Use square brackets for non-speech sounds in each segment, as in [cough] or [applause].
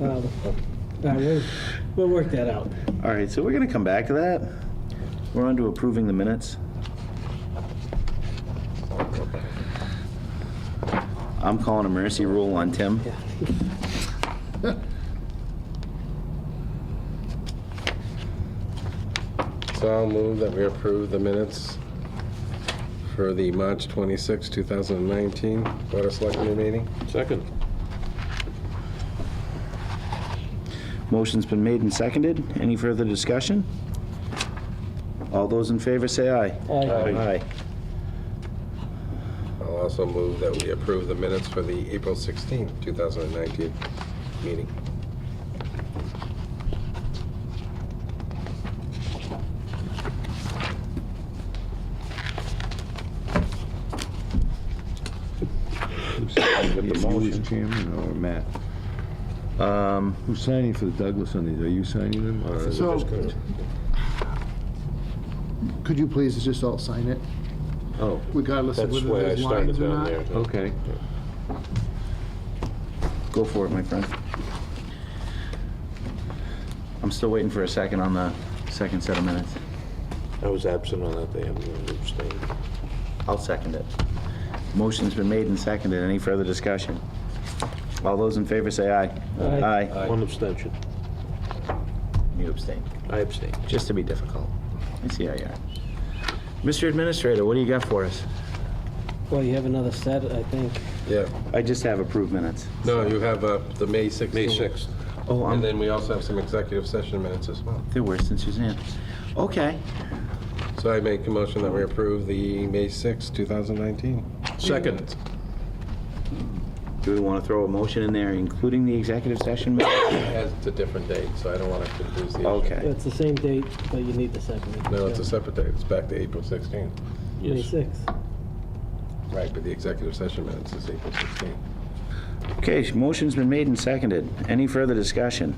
Uh, uh, we'll, we'll work that out. All right, so we're going to come back to that. We're on to approving the minutes. I'm calling a mercy rule on Tim. So I'll move that we approve the minutes for the March 26, 2019 Board of Selectmen meeting. Second. Motion's been made and seconded. Any further discussion? All those in favor say aye. Aye. I'll also move that we approve the minutes for the April 16, 2019 meeting. Get the motion. Chairman or Matt? Um, Who's signing for the Douglas on these? Are you signing them? or is it So- just gonna- Could you please just all sign it, Oh, regardless of That's whether where I there's started lines or down not? there. okay. go for it, my friend. I'm still waiting for a second on the second set of minutes. I was absent on that day, I'm going to abstain. I'll second it. Motion's been made and seconded. Any further discussion? All those in favor say aye. Aye. One abstention. You abstain, I abstained. just to be difficult. I see how you are. Mr. Administrator, what do you got for us? Well, you have another set, I think. Yeah, I just have approved minutes. no, you have uh, the May 16. May 6th. Oh, And I'm, then we also have some executive session minutes as well. they're worse than Suzanne. Okay. So I make a motion that we approve the May 6, 2019. Second. Do we want to throw a motion in there, including the executive session? minutes? It's a different date, so I don't want to confuse the issue. Okay. It's the same date, but you need the second. No, it's a separate date, it's back to April 16. May Yes. 6th. Right, but the executive session minutes is April 16. Okay, motion's been made and seconded. Any further discussion?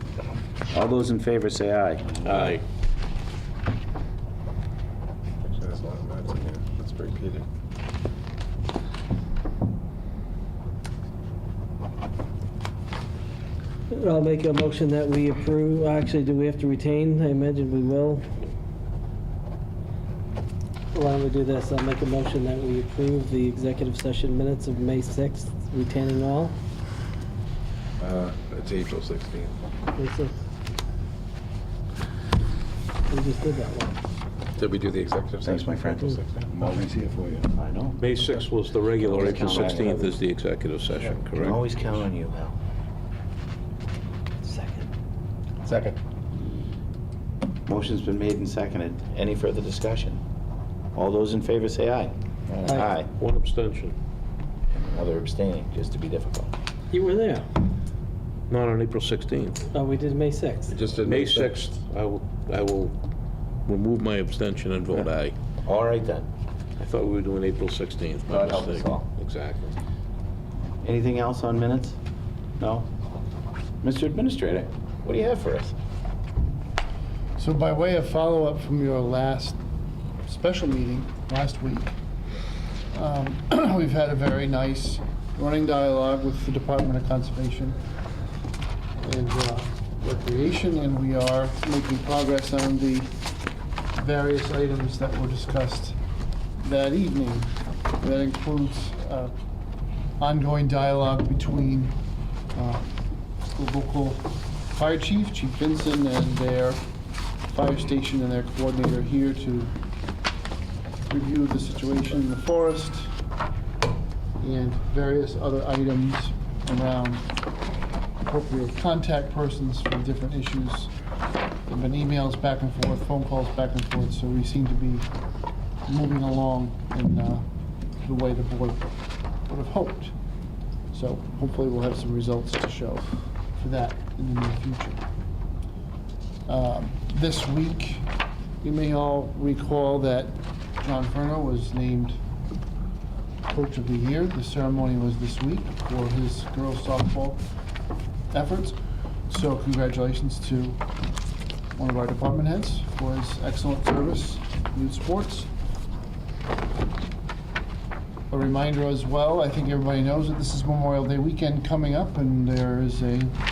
All those in favor say aye. Aye. Actually, That's a lot of minutes in here, let's repeat it. I'll make a motion that we approve, actually, do we have to retain? I imagine we will. Why don't we do this? I'll make a motion that we approve the executive session minutes of May 6th, retaining all. Uh, It's April 16. May 6th. We just did that one. Did we do the executive session? Thanks, my friend. April 16. Always here for you. I know. May 6th was the regular, Always April count on 16th is the executive session, correct? Always count on you, Hal. Second. Second. Motion's been made and seconded. Any further discussion? All those in favor say aye. Aye. One abstention. Another abstaining, just to be difficult. You were there. Not on April 16th. Oh, we did May 6th. Just did May sec- 6th, I will, I will remove my abstention and vote aye. All right then. I thought we were doing April 16th. by God help us mistake. all. Exactly. Anything else on minutes? No? Mr. Administrator, what do you have for us? So by way of follow-up from your last special meeting, last week, um, [clears throat] we've had a very nice running dialogue with the Department of Conservation and uh, Recreation, and we are making progress on the various items that were discussed that evening. That includes uh, ongoing dialogue between uh, the local fire chief, Chief Vincent, and their fire station and their coordinator here to review the situation in the forest and various other items around appropriate contact persons for different issues. There've been emails back and forth, phone calls back and forth, so we seem to be moving along in uh, the way the board would have hoped. So hopefully we'll have some results to show for that in the near future. Um, This week, you may all recall that John Furno was named Coach of the Year. The ceremony was this week for his girls softball efforts. So congratulations to one of our department heads for his excellent service in sports. A reminder as well, I think everybody knows that this is Memorial Day weekend coming up, and there is a